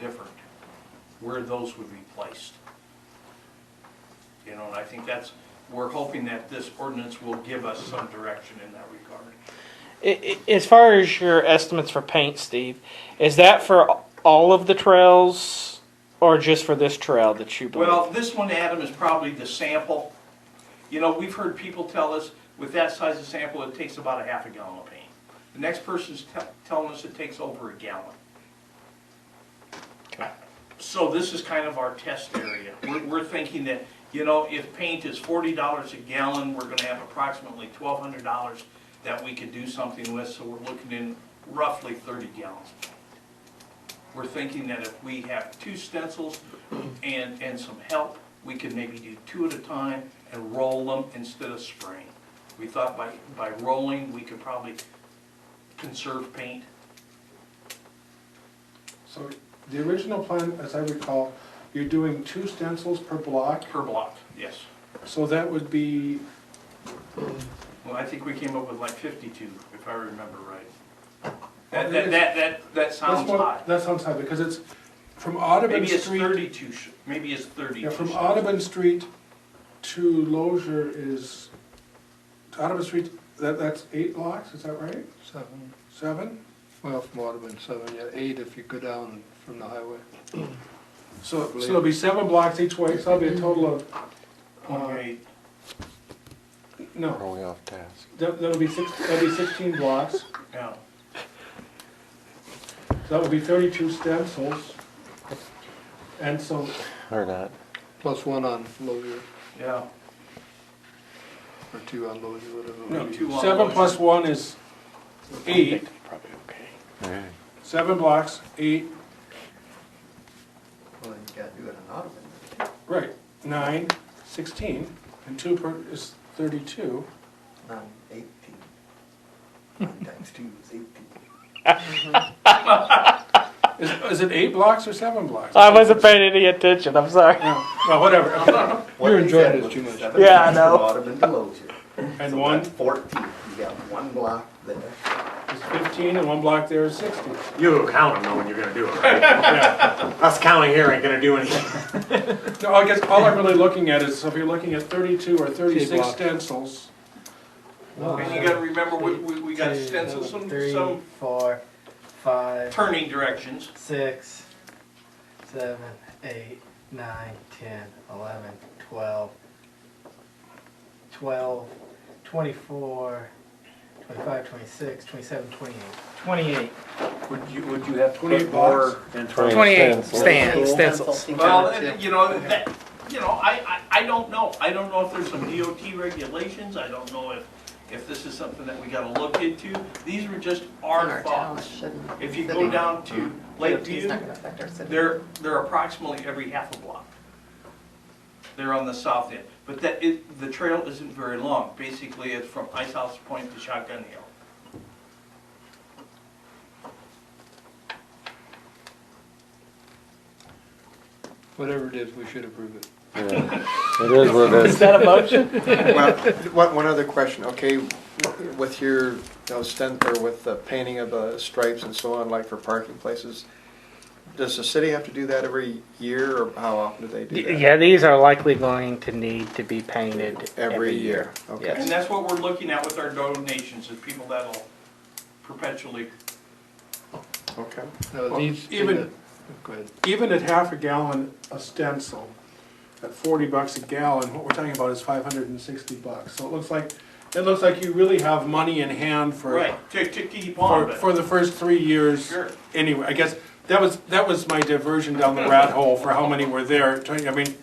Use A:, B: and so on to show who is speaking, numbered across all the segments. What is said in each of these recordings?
A: different, where those would be placed. You know, and I think that's, we're hoping that this ordinance will give us some direction in that regard.
B: I- I- As far as your estimates for paint, Steve, is that for all of the trails or just for this trail that you believe?
A: Well, this one, Adam, is probably the sample. You know, we've heard people tell us, with that size of sample, it takes about a half a gallon of paint. The next person's te- telling us it takes over a gallon.
B: Okay.
A: So this is kind of our test area. We're, we're thinking that, you know, if paint is forty dollars a gallon, we're gonna have approximately twelve hundred dollars that we could do something with, so we're looking in roughly thirty gallons. We're thinking that if we have two stencils and, and some help, we could maybe do two at a time and roll them instead of spraying. We thought by, by rolling, we could probably conserve paint.
C: So the original plan, as I recall, you're doing two stencils per block,
A: Per block, yes.
C: so that would be,
A: Well, I think we came up with like fifty-two, if I remember right. That, that, that, that, that
C: that's
A: sounds high.
C: what, that sounds high, because it's from Audubon
A: Maybe it's
C: Street.
A: thirty-two, sh- maybe it's
C: Yeah,
A: thirty-two.
C: from
A: sh-
C: Audubon Street to Lozier is, to Audubon Street, that, that's eight blocks, is that right?
D: Seven,
C: Seven?
D: well, from Audubon, seven, yeah, eight if you go down from the highway.
C: So, so
D: believe-
C: it'll be seven blocks each way, so that'll be a total of,
A: Okay,
C: no,
E: Are we off task?
C: that, that'll be six, that'll be sixteen blocks,
A: yeah.
C: so that would be thirty-two stencils. And so
E: Or not?
D: Plus one on Lozier,
A: yeah,
D: or two on Lozier, whatever. it
A: No,
D: be.
A: two on
C: Seven
A: Lozier.
C: plus one is eight,
B: Probably okay.
E: Alright.
C: seven blocks, eight,
D: Well, then you gotta do it on Audubon.
C: right, nine, sixteen, and two per, is thirty-two.
F: Nine eighteen. Nine times two is eighteen.
C: Is, is it eight blocks or seven blocks?
B: I wasn't paying any attention. I'm sorry.
C: No, well, whatever,
F: What
D: You're
F: they
D: enjoying
F: said
D: this
F: was
D: too much.
F: seven
B: Yeah, I
F: blocks from
B: know.
F: Ottoman to Lozier.
C: and one is
F: Fourteen, you got one block there.
C: fifteen, and one block there is sixty.
G: You count them knowing you're gonna do it, right? Us counting here ain't gonna do anything.
C: No, I guess all I'm really looking at is, so if you're looking at thirty-two or thirty-six
D: blocks.
C: stencils,
A: And you gotta remember, we, we, we gotta stencil some,
H: Three,
A: some
H: four, five,
A: turning directions.
H: six, seven, eight, nine, ten, eleven, twelve, twelve, twenty-four, twenty-five, twenty-six, twenty-seven, twenty-eight. Twenty-eight.
G: Would you, would you have to
C: 28
G: put more than twenty?
B: stand,
A: Well, uh, you know, that, you know, I, I, I don't know. I don't know if there's some DOT regulations. I don't know if, if this is something that we gotta look into. These were just
I: in
A: our
I: our town, it
A: thoughts.
I: shouldn't.
A: If you
I: City.
A: go down to
I: It's
A: Lakeview,
I: not gonna affect our city.
A: they're, they're approximately every half a block. They're on the south end. But that, it, the trail isn't very long. Basically, it's from Ice House Point to Shotgun Hill.
D: Whatever it is, we should approve it.
E: Yeah. It is what it
B: Is
E: is.
B: that a motion?
E: Well, one, one other question, okay, with your, you know, stent, or with the painting of the stripes and so on, like for parking places, does the city have to do that every year, or how often do they do that?
B: Yeah, these are likely going to need to be painted
E: Every year, okay.
A: And that's what we're looking at with our donations, is people that'll perpetually
E: Okay.
D: Now, these, Oh,
C: even-
D: go ahead.
C: even at half a gallon a stencil, at forty bucks a gallon, what we're talking about is five hundred and sixty bucks. So it looks like, it looks like you really have money in hand for,
A: Right, to, to keep on,
C: for,
A: but,
C: for the first three years.
A: Sure.
C: Anyway, I guess, that was, that was my diversion down the rat hole for how many were there, Tell you, I mean,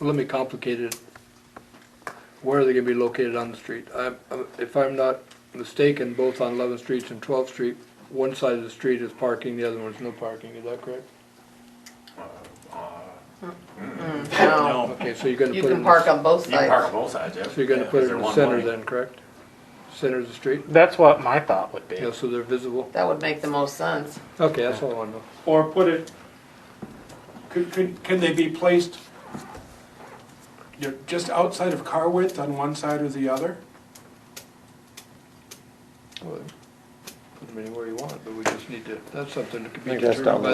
D: Let me complicate it. Where are they gonna be located on the street? I, I- if I'm not mistaken, both on Eleventh Street and Twelfth Street, one side of the street is parking, the other one is no parking, is that correct?
I: No,
A: no,
D: Okay, so you're gonna put
I: Mm. you
D: it. in
I: can
D: the-
I: park on both
G: You can park on
I: sides.
G: both sides, yeah.
D: So you're gonna
G: Yeah,
D: put
G: is
D: it
G: there
D: in the
G: one
D: center
G: way?
D: then, correct? Center of the street?
B: That's what my thought would be.
D: Yeah, so they're visible?
I: That would make the most sense.
D: Okay, that's all I want to know.
C: or put it, could, could, can they be placed you know, just outside of car width on one side or the other?
E: them anywhere you want, but we just need to
D: That's something that could
E: I
D: be
E: think that's
D: determined by
E: down the